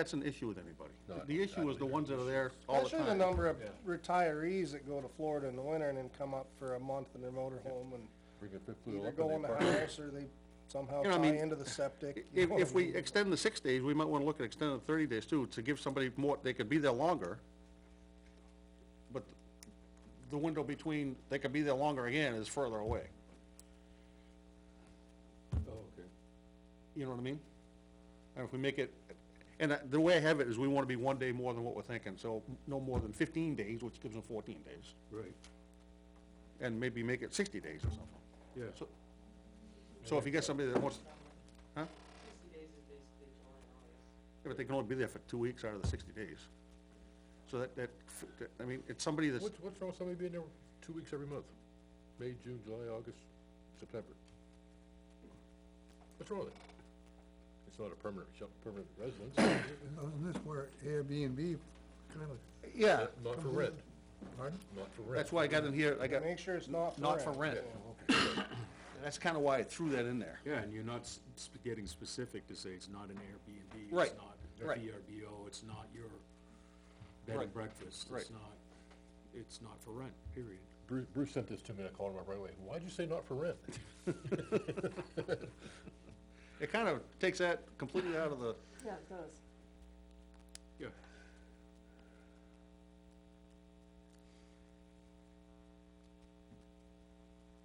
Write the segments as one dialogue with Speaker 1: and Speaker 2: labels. Speaker 1: that's an issue with anybody.
Speaker 2: No, I
Speaker 1: The
Speaker 2: don't- I
Speaker 1: issue is the
Speaker 2: believe
Speaker 1: ones that are there all the
Speaker 3: Especially the
Speaker 1: time.
Speaker 3: number of retirees that go to Florida in the winter and then come up for a month in their motorhome and
Speaker 2: Bring a fifth wheel
Speaker 3: either
Speaker 2: up and
Speaker 3: go
Speaker 2: they
Speaker 3: in the
Speaker 2: park it.
Speaker 3: house or they somehow
Speaker 1: You know, I
Speaker 3: tie
Speaker 1: mean,
Speaker 3: into the septic. you
Speaker 1: If,
Speaker 3: know what
Speaker 1: if
Speaker 3: I
Speaker 1: we
Speaker 3: mean?
Speaker 1: extend the six days, we might wanna look at extending the thirty days too, to give somebody more, they could be there longer. But the window between, they could be there longer again is further away,
Speaker 2: Oh, okay.
Speaker 1: you know what I mean? And if we make it, and I- the way I have it is we wanna be one day more than what we're thinking, so no more than fifteen days, which gives them fourteen days.
Speaker 4: Right,
Speaker 1: and maybe make it sixty days or something.
Speaker 4: yeah.
Speaker 1: So- So if you get somebody that wants, huh?
Speaker 5: sixty days is basically July and August.
Speaker 1: Yeah, but they can only be there for two weeks out of the sixty days. So that, that, f- that- I mean, it's somebody that's,
Speaker 2: What's, what's wrong with somebody being there two weeks every month? May, June, July, August, September? What's wrong with it? It's not a permanent, shel- permanent residence, not
Speaker 6: Isn't this where Airbnb kind of,
Speaker 3: Yeah,
Speaker 2: for rent,
Speaker 6: pardon?
Speaker 2: not for rent.
Speaker 1: that's why I got in here, I got,
Speaker 3: make sure it's not for
Speaker 1: not for
Speaker 3: rent.
Speaker 1: rent. That's kinda why I threw that in there.
Speaker 4: Yeah, and you're not s- s- getting specific to say it's not an Airbnb.
Speaker 1: Right,
Speaker 4: It's not
Speaker 1: right.
Speaker 4: a VRBO, it's not your bed
Speaker 1: Right,
Speaker 4: and breakfast.
Speaker 1: right.
Speaker 4: It's not, it's not for rent, period.
Speaker 2: Bruce, Bruce sent this to me and I called him up right away. Why'd you say not for rent?
Speaker 1: It kind of takes that completely out of the,
Speaker 5: Yeah, it does.
Speaker 4: Yeah.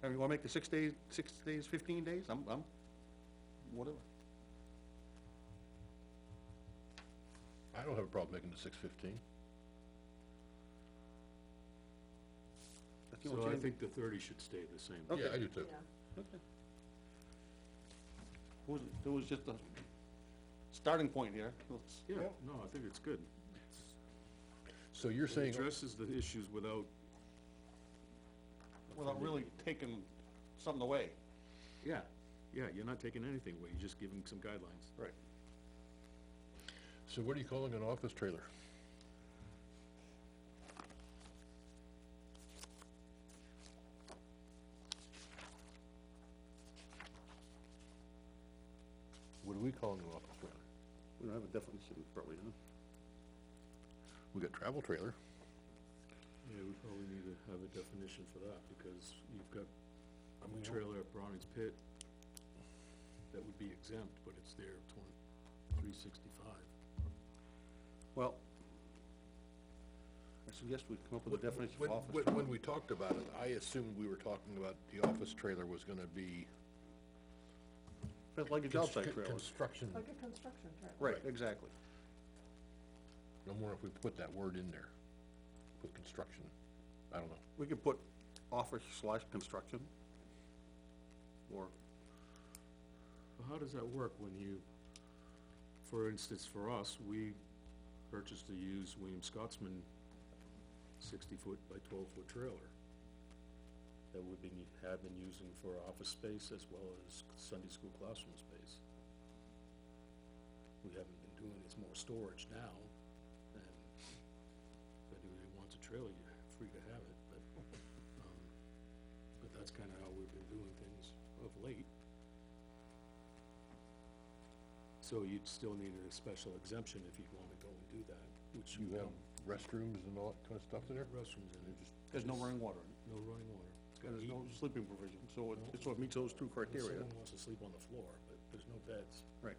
Speaker 1: I mean, you wanna make the six days, six days, fifteen days, I'm, I'm, whatever.
Speaker 2: I don't have a problem making it six fifteen.
Speaker 1: That's the only
Speaker 4: So I
Speaker 1: change.
Speaker 4: think the thirty should stay the same.
Speaker 2: Yeah, I do too.
Speaker 1: It was, it was just a starting point here, let's,
Speaker 4: Yeah,
Speaker 3: Yep.
Speaker 4: no, I think it's good.
Speaker 2: So you're
Speaker 4: It
Speaker 2: saying,
Speaker 4: addresses the issues without,
Speaker 1: without really taking something away.
Speaker 4: yeah, yeah, you're not taking anything away, you're just giving some guidelines.
Speaker 1: Right.
Speaker 2: so what are you calling an office trailer? What are we calling an office trailer?
Speaker 1: We don't have a definition, probably, huh?
Speaker 2: We got travel trailer.
Speaker 4: Yeah, we probably need to have a definition for that, because you've got a trailer at Browning's Pit that would be exempt, but it's there twenty, three sixty-five.
Speaker 1: Well, I suggest we come up with a definition
Speaker 2: When-
Speaker 1: of office.
Speaker 2: when- When we talked about it, I assumed we were talking about the office trailer was gonna be.
Speaker 1: That's like a job site
Speaker 2: constru-
Speaker 1: trailer.
Speaker 2: Construction,
Speaker 5: Like a construction trailer.
Speaker 1: Right, exactly.
Speaker 2: no more if we put that word in there, put construction, I don't know.
Speaker 1: We could put office slash construction. Or,
Speaker 4: Well, how does that work when you, for instance, for us, we purchased a used William Scotsman sixty-foot by twelve-foot trailer that we've been, have been using for office space as well as Sunday school classroom space. We haven't been doing, it's more storage now, and if anybody wants a trailer, you're free to have it, but, um, but that's kinda how we've been doing things of late. So you'd still need a special exemption if you'd wanna go and do that, which you
Speaker 2: You have
Speaker 4: don't.
Speaker 2: restrooms and all that kinda stuff in there?
Speaker 4: Restrooms in it, just
Speaker 1: there's no running water in
Speaker 4: no running water. It's
Speaker 1: it, and
Speaker 4: got
Speaker 1: there's
Speaker 4: heat.
Speaker 1: no sleeping provision, so it, so it meets those two
Speaker 4: Unless
Speaker 1: criteria.
Speaker 4: Someone wants to sleep on the floor, but there's no beds.
Speaker 1: Right.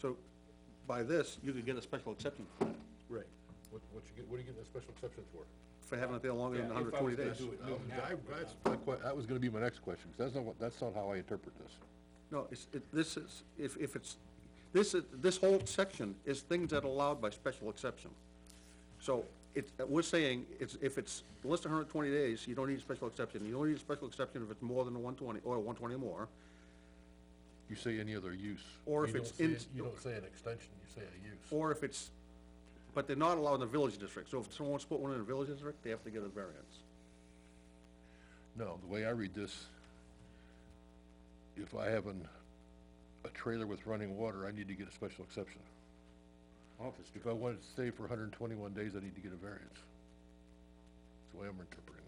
Speaker 1: So, by this, you could get a special exception for that,
Speaker 4: Right.
Speaker 2: What, what you get, what are you getting a special exception for?
Speaker 1: for having it there longer than
Speaker 4: Yeah, if I
Speaker 1: hundred twenty
Speaker 4: was gonna
Speaker 1: days.
Speaker 4: do it
Speaker 2: I was- I- that's my que- that was gonna be my next question, 'cause that's not what, that's not how I interpret this.
Speaker 1: No, it's, it, this is, if, if it's, this is, this whole section is things that are allowed by special exception. So it, we're saying, it's, if it's less than hundred and twenty days, you don't need a special exception. You don't need a special exception if it's more than one twenty, or one twenty or more.
Speaker 2: You say any other use.
Speaker 1: Or
Speaker 2: You
Speaker 1: if it's
Speaker 2: don't
Speaker 1: in-
Speaker 2: say- You don't say an extension, you say a use.
Speaker 1: Or if it's, but they're not allowed in the village district. So if someone wants to put one in a village district, they have to get a variance.
Speaker 2: No, the way I read this, if I have an, a trailer with running water, I need to get a special exception.
Speaker 1: Office.
Speaker 2: If I want to stay for hundred and twenty-one days, I need to get a variance. That's the way I'm interpreting